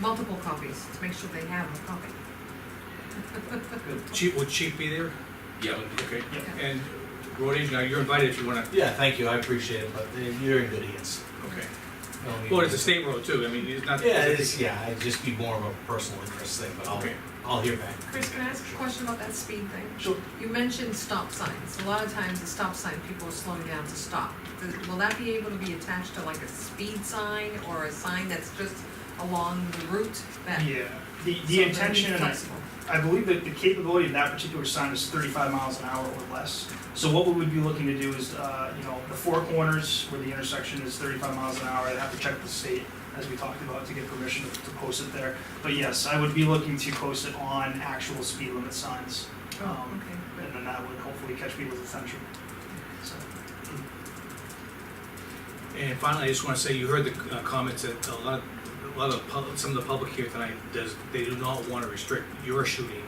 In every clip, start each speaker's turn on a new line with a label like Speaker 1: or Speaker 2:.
Speaker 1: multiple copies to make sure they have a copy.
Speaker 2: Chief, would Chief be there?
Speaker 3: Yeah.
Speaker 2: Okay.
Speaker 1: Yeah.
Speaker 2: And road agent, now you're invited if you wanna,
Speaker 4: Yeah, thank you, I appreciate it, but they- you're in good hands.
Speaker 2: okay.
Speaker 4: No need
Speaker 2: Well, it's
Speaker 4: to-
Speaker 2: a state road too, I mean, it's not.
Speaker 4: Yeah, it is, yeah, it'd just be more of a personal interest thing, but I'll,
Speaker 2: Okay.
Speaker 4: I'll hear back.
Speaker 1: Chris, can I ask a question about that speed thing?
Speaker 4: Sure.
Speaker 1: You mentioned stop signs. A lot of times the stop sign, people are slowing down to stop. Th- Will that be able to be attached to like a speed sign or a sign that's just along the route that?
Speaker 5: Yeah, the,
Speaker 1: so
Speaker 5: the
Speaker 1: they're
Speaker 5: intention, and I,
Speaker 1: flexible?
Speaker 5: I believe that the capability of that particular sign is thirty-five miles an hour or less. So what we would be looking to do is, uh, you know, the four corners where the intersection is thirty-five miles an hour, I'd have to check with the state, as we talked about, to get permission to, to post it there. But yes, I would be looking to post it on actual speed limit signs,
Speaker 1: Oh,
Speaker 5: um,
Speaker 1: okay.
Speaker 5: and then that would hopefully catch people's attention, so.
Speaker 2: And finally, I just wanna say, you heard the uh, comments that a lot, a lot of, pub- some of the public here tonight does, they do not wanna restrict your shooting.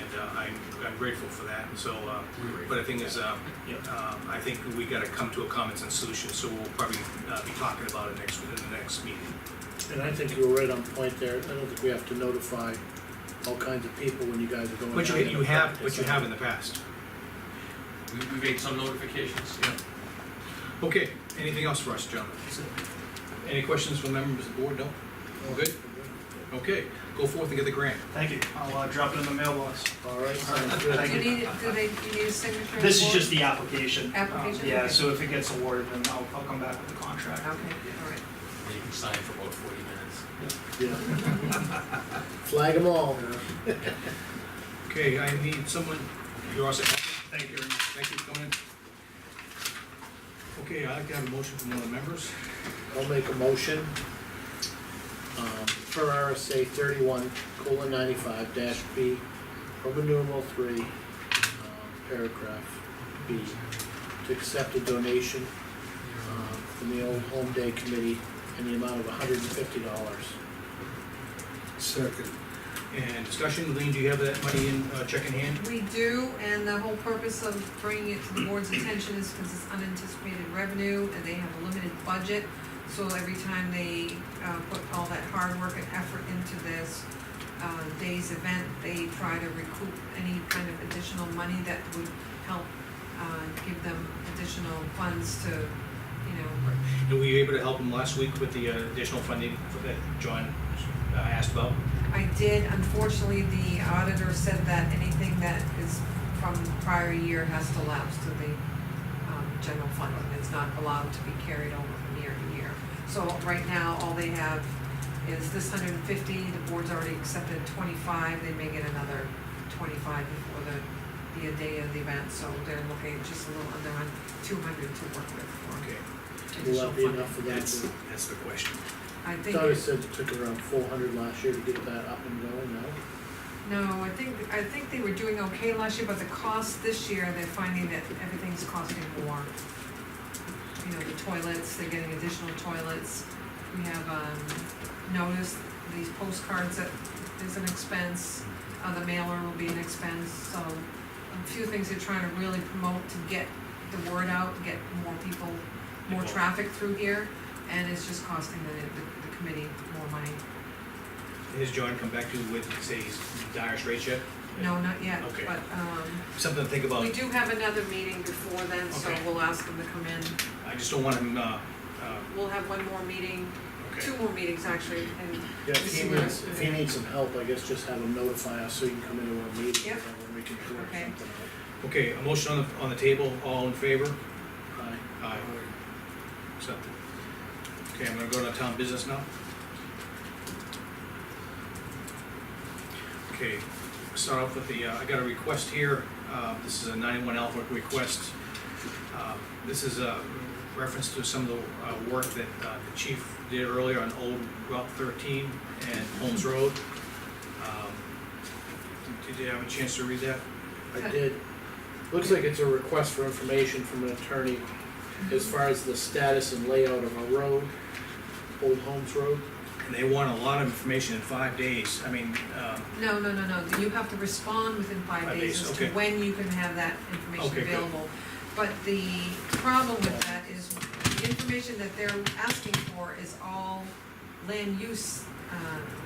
Speaker 2: And, uh, I'm, I'm grateful for that, and so, uh, but the thing is, uh,
Speaker 5: Yeah.
Speaker 2: uh, I think we gotta come to a common sense solution, so we'll probably, uh, be talking about it next, in the next meeting.
Speaker 6: And I think you were right on point there, I don't think we have to notify all kinds of people when you guys are going.
Speaker 2: But you,
Speaker 6: out and
Speaker 2: you have,
Speaker 6: practice.
Speaker 2: but you have in the past.
Speaker 3: We, we made some notifications.
Speaker 2: Okay, anything else for us, gentlemen?
Speaker 5: so-
Speaker 2: Any questions from members of the board? No? We're good? Okay, go forth and get the grant.
Speaker 5: Thank you, I'll, uh, drop it in the mailbox.
Speaker 6: All right, sounds good.
Speaker 5: Thank
Speaker 1: Do
Speaker 5: you.
Speaker 1: you need, do they, you need a signature?
Speaker 5: This is
Speaker 1: for-
Speaker 5: just the application. Um,
Speaker 1: Application,
Speaker 5: Yeah,
Speaker 1: okay.
Speaker 5: so if it gets awarded, then I'll, I'll come back with the
Speaker 1: Okay, all
Speaker 5: contract.
Speaker 1: right.
Speaker 3: You can sign for about forty minutes.
Speaker 6: Yeah. Flag them all.
Speaker 2: Okay, I need someone, you're all set.
Speaker 5: Thank you very much.
Speaker 2: Thank you for coming in. Okay, I'd like to have a motion from one of the members.
Speaker 6: I'll make a motion, um, per RSA thirty-one, colon ninety-five dash B, Roman numeral three, um, paragraph B, to accept a donation, um, from the Old Home Day Committee in the amount of hundred and fifty dollars.
Speaker 2: Second. And discussion, Lean, do you have that money in, uh, check in hand?
Speaker 1: We do, and the whole purpose of bringing it to the board's attention is because it's unanticipated revenue, and they have a limited budget. So every time they, uh, put all that hard work and effort into this, uh, day's event, they try to recoup any kind of additional money that would help, uh, give them additional funds to, you know,
Speaker 2: And were you able to help him last week with the uh, additional funding that John uh, asked about?
Speaker 1: I did, unfortunately, the auditor said that anything that is from prior year has to lapse to the, um, general fund, and it's not allowed to be carried over from year to year. So right now, all they have is this hundred and fifty, the board's already accepted twenty-five, they may get another twenty-five before the, the day of the event, so they're looking just a little under two hundred to work with
Speaker 2: Okay,
Speaker 1: for
Speaker 6: Will
Speaker 1: additional
Speaker 6: that be
Speaker 1: funding.
Speaker 6: enough for
Speaker 2: that's,
Speaker 6: that?
Speaker 2: that's the question.
Speaker 1: I think.
Speaker 6: Doug said it took around four hundred last year to get that up and going, no?
Speaker 1: No, I think, I think they were doing okay last year, but the cost this year, they're finding that everything's costing more. You know, the toilets, they're getting additional toilets. We have, um, noticed these postcards that is an expense, uh, the mailer will be an expense, so a few things they're trying to really promote to get the word out, get more people, more
Speaker 2: Involved.
Speaker 1: traffic through here, and it's just costing the, the- the committee more money.
Speaker 2: Has John come back to you with, say, he's in dire straits yet?
Speaker 1: No, not yet,
Speaker 2: Okay.
Speaker 1: but, um,
Speaker 2: Something to think about.
Speaker 1: We do have another meeting before then, so
Speaker 2: Okay.
Speaker 1: we'll ask them to come in.
Speaker 2: I just don't want him, uh, uh,
Speaker 1: We'll have one more meeting,
Speaker 2: okay.
Speaker 1: two more meetings actually, and,
Speaker 6: Yeah, if he
Speaker 1: This is-
Speaker 6: needs, if he needs some help, I guess just have him notify us so he can come into our meeting.
Speaker 1: Yep.
Speaker 6: And then we can work
Speaker 1: Okay.
Speaker 6: something
Speaker 2: Okay, a motion on the, on the table, all in favor?
Speaker 6: out. Aye.
Speaker 2: Aye. Accepted. Okay, I'm gonna go to town business now. Okay, start off with the, uh, I got a request here, uh, this is a ninety-one Alpha request. Uh, This is a reference to some of the uh, work that uh, the chief did earlier on Old Route thirteen and Holmes Road. Um, Did did you have a chance to read that?
Speaker 6: I did. Looks like it's a request for information from an attorney as far as the status and layout of our road, Old Holmes Road.
Speaker 2: And they want a lot of information in five days, I mean, um,
Speaker 1: no, no, no, no, you have to respond within five
Speaker 2: Five
Speaker 1: days
Speaker 2: days,
Speaker 1: as to
Speaker 2: okay.
Speaker 1: when you can have that information
Speaker 2: Okay, good.
Speaker 1: available. But the problem with that is the information that they're asking for is all land use, uh,